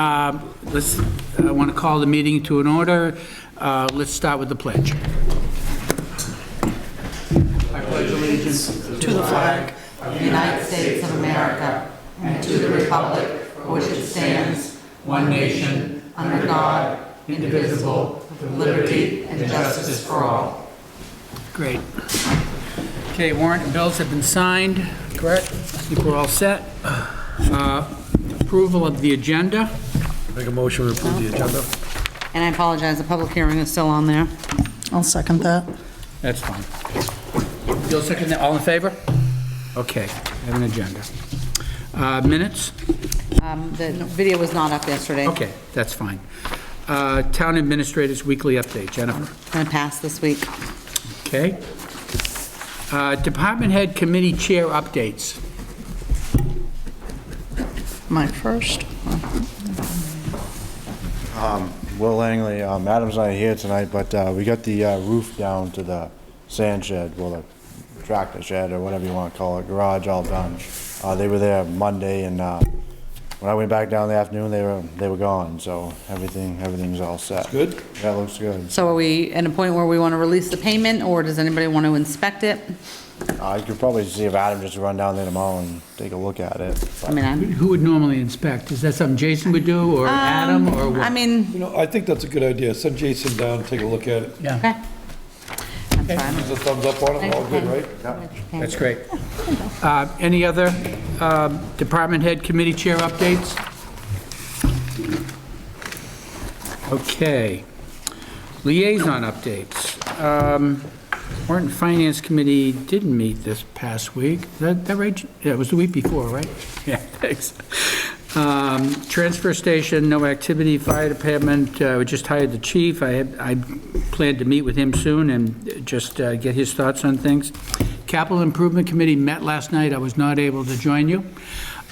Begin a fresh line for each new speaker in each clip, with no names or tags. Um, Let's, I want to call the meeting to an order. Uh, Let's start with the pledge.
to the flag of the United States of America and to the republic for which it stands, one nation, under God, indivisible, with liberty and justice for all.
Great. Okay, warrant and bills have been signed, correct? I think we're all set. Uh, Approval of the agenda.
Make a motion to approve the agenda.
And I apologize, the public hearing is still on there.
I'll second that.
That's fine. You'll second that, all in favor? Okay, I have an agenda. Uh, Minutes?
Um, The video was not up yesterday.
Okay, that's fine. Uh, Town Administrator's Weekly Update, Jennifer.
Going to pass this week.
Okay. Uh, Department Head Committee Chair Updates.
My first.
Will Langley, um, Adam's not here tonight, but uh, we got the uh, roof down to the sand shed, well, the tractor shed, or whatever you want to call it, garage all done. Uh, They were there Monday, and uh, when I went back down in the afternoon, they were, they were gone, so everything, everything's all set. Good? Yeah, it looks good.
So are we at a point where we want to release the payment, or does anybody want to inspect it?
I could probably see if Adam just run down there tomorrow and take a look at it.
I mean, I'm...
Who would normally inspect? Is that something Jason would do, or Adam, or
Um, I
what?
mean,
You know, I think that's a good idea. Send Jason down, take a look at it.
Yeah,
okay. I'm fine.
There's a thumbs up on it, all good, right?
that's great. Uh, Any other um, Department Head Committee Chair Updates? Okay. Liaison Updates. Um, Warrant and Finance Committee didn't meet this past week. Is That, that right? Yeah, it was the week before, right? Yeah, thanks. Um, Transfer station, no activity. Fire department, uh, we just hired the chief. I, had- I plan to meet with him soon and just uh, get his thoughts on things. Capital Improvement Committee met last night. I was not able to join you.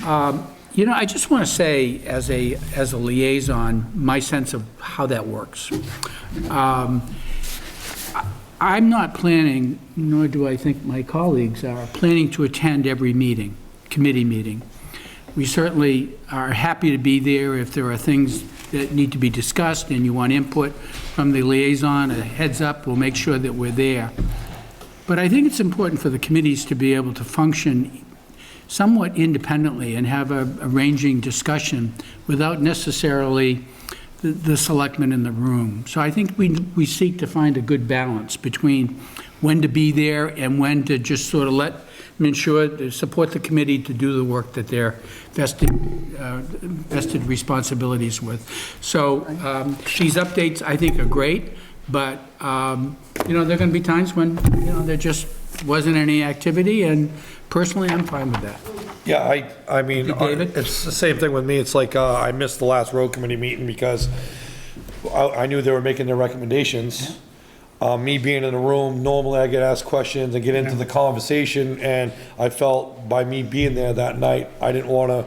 Um, You know, I just want to say, as a, as a liaison, my sense of how that works. Um, I'm not planning, nor do I think my colleagues are, planning to attend every meeting, committee meeting. We certainly are happy to be there if there are things that need to be discussed and you want input from the liaison, a heads up, we'll make sure that we're there. But I think it's important for the committees to be able to function somewhat independently and have a a ranging discussion without necessarily the- the selectmen in the room. So I think we, we seek to find a good balance between when to be there and when to just sort of let, ensure, to support the committee to do the work that they're vested, uh, vested responsibilities with. So um, these updates, I think, are great, but, um, you know, there are going to be times when, you know, there just wasn't any activity, and personally, I'm fine with that.
Yeah, I, I mean,
Hey, David?
it's the same thing with me. It's like, uh, I missed the last road committee meeting because I, I knew they were making their recommendations. Uh, me being in the room, normally I get asked questions and get into the conversation, and I felt by me being there that night, I didn't wanna,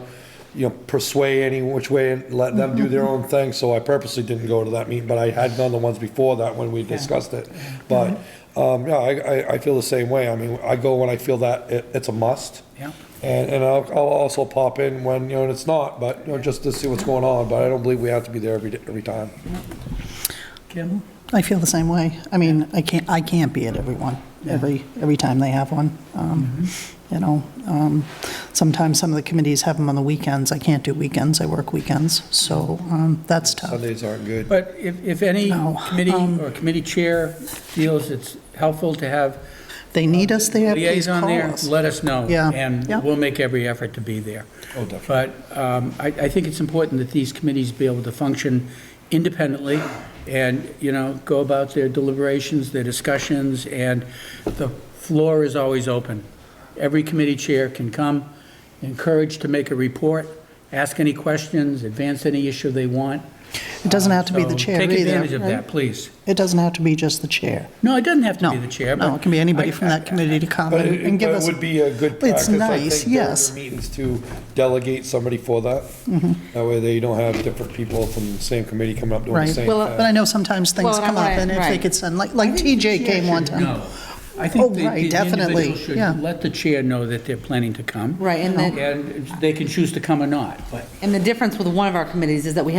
you know, persuade any which way and let them do their own thing, so I purposely didn't go to that meeting, but I had done the ones before that when we discussed it. But, um, yeah, I, I, I feel the same way. I mean, I go when I feel that it, it's a must.
Yeah.
And, and I'll, I'll also pop in when, you know, and it's not, but, you know, just to see what's going on, but I don't believe we have to be there every, day- every time.
Campbell?
I feel the same way. I mean, I can't, I can't be at every one, every, every time they have one. Um, You know, um, sometimes some of the committees have them on the weekends. I can't do weekends, I work weekends, so um, that's tough.
Sundays aren't good.
But if, if any
No,
committee or committee chair feels it's helpful to have
They need us there, please
uh, liaison
call
there,
us.
let us know.
Yeah,
And
yeah.
we'll make every effort to be there.
Oh, definitely.
But um, I, I think it's important that these committees be able to function independently and, you know, go about their deliberations, their discussions, and the floor is always open. Every committee chair can come, encouraged to make a report, ask any questions, advance any issue they want.
It doesn't have to be the
So
chair either.
Take advantage of
right?
that, please.
It doesn't have to be just the chair.
No, it doesn't have to
No.
be the chair.
No,
but
it can be anybody
I-
from that committee to come
But
and
it,
and give
but it
us.
would be a good practice,
It's
I
nice,
think, during
yes. Mm-hmm.
the meetings to delegate somebody for that. That way they don't have different people from the same committee coming up doing the
Right.
same
Well,
thing.
But I know sometimes things
Well, and
come
I'm
up,
right,
and if they
right.
could send, like, like TJ came one time.
No. I think
Oh,
the
right,
the
definitely,
individual should
yeah.
let the chair know that they're planning to come.
Right, and the,
And they can choose to come or not, but
and the difference with one of our committees is that we have